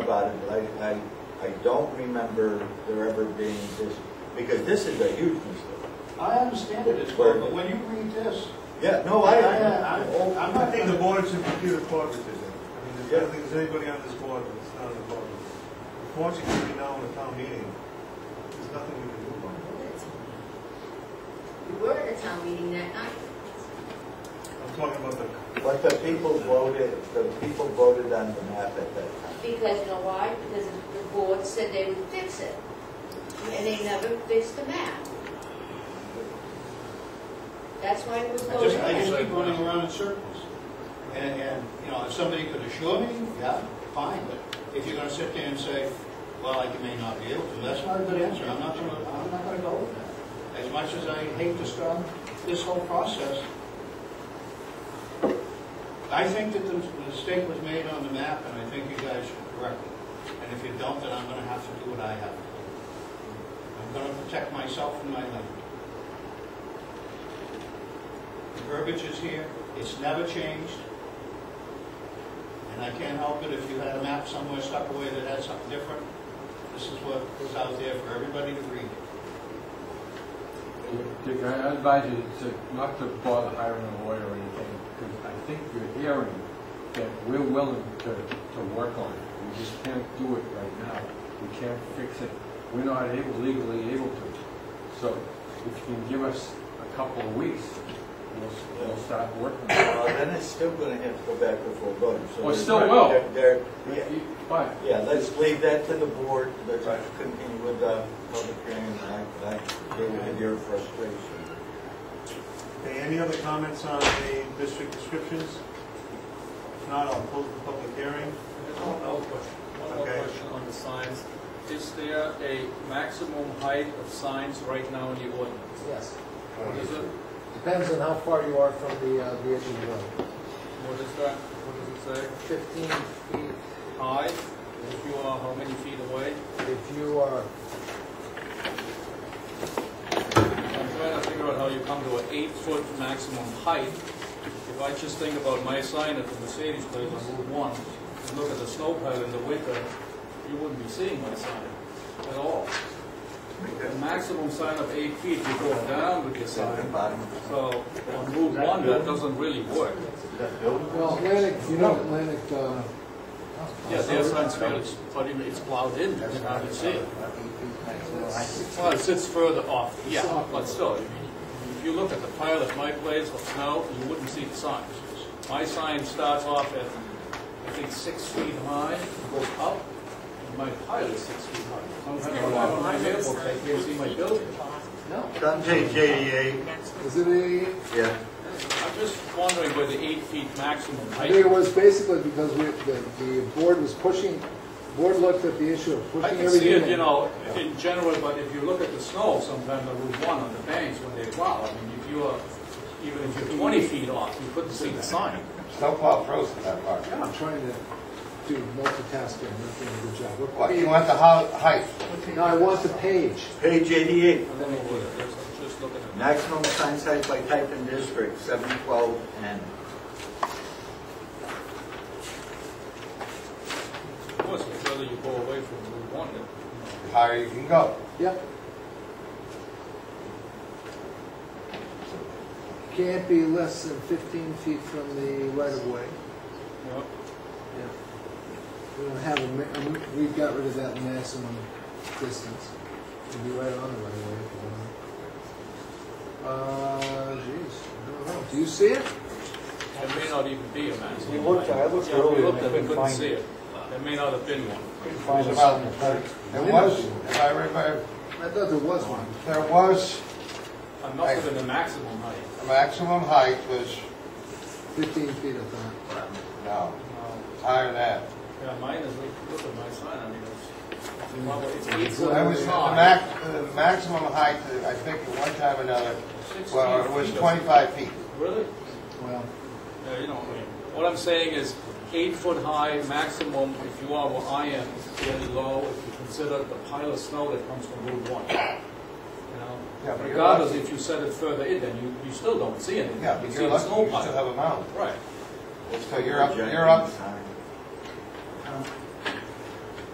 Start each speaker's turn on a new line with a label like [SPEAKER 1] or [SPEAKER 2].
[SPEAKER 1] about it, but I, I, I don't remember there ever being this, because this is a huge mistake.
[SPEAKER 2] I understand it as well, but when you read this,
[SPEAKER 1] Yeah, no, I,
[SPEAKER 2] I- I-
[SPEAKER 1] oh,
[SPEAKER 2] I'm
[SPEAKER 3] I
[SPEAKER 2] not
[SPEAKER 3] think the
[SPEAKER 2] gonna,
[SPEAKER 3] board should computer cooperative. I mean, there's- I don't think there's anybody on this board that's not on the board. Unfortunately, right now in the town meeting, there's nothing we can do on it.
[SPEAKER 4] We were at a town meeting that night.
[SPEAKER 3] I'm talking about the,
[SPEAKER 1] but the people voted, the people voted on the map at that time.
[SPEAKER 4] Because, you know why? Because the board said they would fix it. And they never fixed the map. That's why it was
[SPEAKER 2] I just,
[SPEAKER 4] voted
[SPEAKER 2] I just
[SPEAKER 4] in.
[SPEAKER 2] keep running around in circles. And, and, you know, if somebody could assure me, yeah, fine, but if you're gonna sit there and say, well, I may not be able to, that's not a good answer, I'm not gonna, I'm not gonna go with that. As much as I hate to start this whole process, I think that the the mistake was made on the map, and I think you guys should correct it. And if you don't, then I'm gonna have to do what I have to do. I'm gonna protect myself and my land. The verbiage is here, it's never changed. And I can't help it if you had a map somewhere stuck away that had something different. This is what was out there for everybody to read.
[SPEAKER 5] Dick, I I advise you to, not to bother hiring a lawyer or anything, because I think you're hearing that we're willing to, to work on it. We just can't do it right now. We can't fix it. We're not able, legally able to. So if you can give us a couple of weeks, we'll, we'll start working. on it.
[SPEAKER 1] Well, then it's still gonna have to go back before voting, so.
[SPEAKER 5] Well, it
[SPEAKER 1] they're-
[SPEAKER 5] still will.
[SPEAKER 1] they're- they're- yeah.
[SPEAKER 5] But
[SPEAKER 1] Yeah, let's leave that to the board, let's continue with the public hearing, and I, I deal with your frustration.
[SPEAKER 3] okay, any other comments on the district descriptions? If not, I'll close the public hearing.
[SPEAKER 6] There's one other question, one more
[SPEAKER 3] Okay.
[SPEAKER 6] question on the signs. Is there a maximum height of signs right now in the ordinance?
[SPEAKER 7] Yes,
[SPEAKER 6] What is it?
[SPEAKER 7] depends on how far you are from the, uh, the edge of the road.
[SPEAKER 6] What is that? What does it say?
[SPEAKER 7] Fifteen feet,
[SPEAKER 6] High, if you are how many feet away?
[SPEAKER 7] if you are,
[SPEAKER 6] I'm trying to figure out how you come to an eight-foot maximum height. If I just think about my sign at the Mercedes place on Route One, and look at the snow pile in the winter, you wouldn't be seeing my sign at all. The maximum sign of eight feet, you go down with your sign. So on Route One, that doesn't really work.
[SPEAKER 7] well, Atlantic, you know Atlantic, uh.
[SPEAKER 6] Yeah, their sign's fairly, but it- it's plowed in, you can hardly see it. Well, it sits further off, yeah, but still, I mean, if you look at the pile at my place of snow, you wouldn't see the signs. My sign starts off at, I think, six feet high, goes up, and my pile is six feet high. Sometimes when I'm on my mailbox, I can't see my building.
[SPEAKER 7] No,
[SPEAKER 1] Come take JDA.
[SPEAKER 7] is it eighty-eight?
[SPEAKER 1] Yeah.
[SPEAKER 6] I'm just wondering where the eight feet maximum
[SPEAKER 7] I
[SPEAKER 6] height
[SPEAKER 7] think it
[SPEAKER 6] is.
[SPEAKER 7] was basically because we, the, the board was pushing, board looked at the issue of
[SPEAKER 6] I
[SPEAKER 7] pushing
[SPEAKER 6] can see
[SPEAKER 7] everything.
[SPEAKER 6] it, you know, in general, but if you look at the snow, sometimes on Route 1 on the banks when they plow, I mean, if you are, even if you're 20 feet off, you couldn't see the sign.
[SPEAKER 8] Snowplow froze in that part.
[SPEAKER 7] I'm trying to do multitasking, I'm not doing a good job. What
[SPEAKER 8] What,
[SPEAKER 7] page?
[SPEAKER 8] you want the hou- height?
[SPEAKER 7] No, I want the page.
[SPEAKER 1] Page eighty-eight,
[SPEAKER 6] I don't know what it is, I'm just looking at
[SPEAKER 1] maximum sign size by type and district, seven twelve N.
[SPEAKER 6] it. Of course, the further you go away from Route 1, the-
[SPEAKER 8] Higher you can go.
[SPEAKER 7] Yep. Can't be less than fifteen feet from the right of way.
[SPEAKER 6] you know,
[SPEAKER 7] We don't have a, ma- um, we've got rid of that maximum distance. It'd be right on the right of way if you want. Uh, geez, I don't know. Do you see it?
[SPEAKER 6] there may not even be a maximum.
[SPEAKER 9] We looked, I looked
[SPEAKER 6] Yeah, we
[SPEAKER 9] earlier and
[SPEAKER 6] looked
[SPEAKER 9] I
[SPEAKER 6] at it, we
[SPEAKER 9] couldn't
[SPEAKER 6] couldn't
[SPEAKER 9] find
[SPEAKER 6] see
[SPEAKER 9] it.
[SPEAKER 6] it. There may not have been one.
[SPEAKER 9] Couldn't
[SPEAKER 8] It
[SPEAKER 9] find
[SPEAKER 8] was
[SPEAKER 9] it.
[SPEAKER 8] about, there was, if I remember,
[SPEAKER 7] I thought there was one.
[SPEAKER 8] there was,
[SPEAKER 6] I'm not within the maximum height.
[SPEAKER 8] the maximum height was,
[SPEAKER 7] Fifteen feet, I thought.
[SPEAKER 8] no,
[SPEAKER 6] Uh,
[SPEAKER 8] higher than that.
[SPEAKER 6] Yeah, mine is, look at my sign, I mean, it's, well, it's eight foot
[SPEAKER 8] That was, the
[SPEAKER 6] high.
[SPEAKER 8] max, the maximum height, that I think at one time or another,
[SPEAKER 6] Six
[SPEAKER 8] well, it
[SPEAKER 6] feet.
[SPEAKER 8] was twenty-five feet.
[SPEAKER 6] Really?
[SPEAKER 7] Well,
[SPEAKER 6] Yeah, Uh, you know, I mean, what I'm saying is eight foot high maximum if you are where I am, is fairly low if you consider the pile of snow that comes from Route One. You
[SPEAKER 8] Yeah,
[SPEAKER 6] know,
[SPEAKER 8] but you're-
[SPEAKER 6] regardless if you set it further in, then you, you still don't see anything.
[SPEAKER 8] Yeah,
[SPEAKER 6] You
[SPEAKER 8] but
[SPEAKER 6] see
[SPEAKER 8] you're
[SPEAKER 6] the
[SPEAKER 8] lucky,
[SPEAKER 6] snow
[SPEAKER 8] you still
[SPEAKER 6] pile.
[SPEAKER 8] have a mountain.
[SPEAKER 6] Right.
[SPEAKER 8] So you're up, you're up,
[SPEAKER 1] Sign.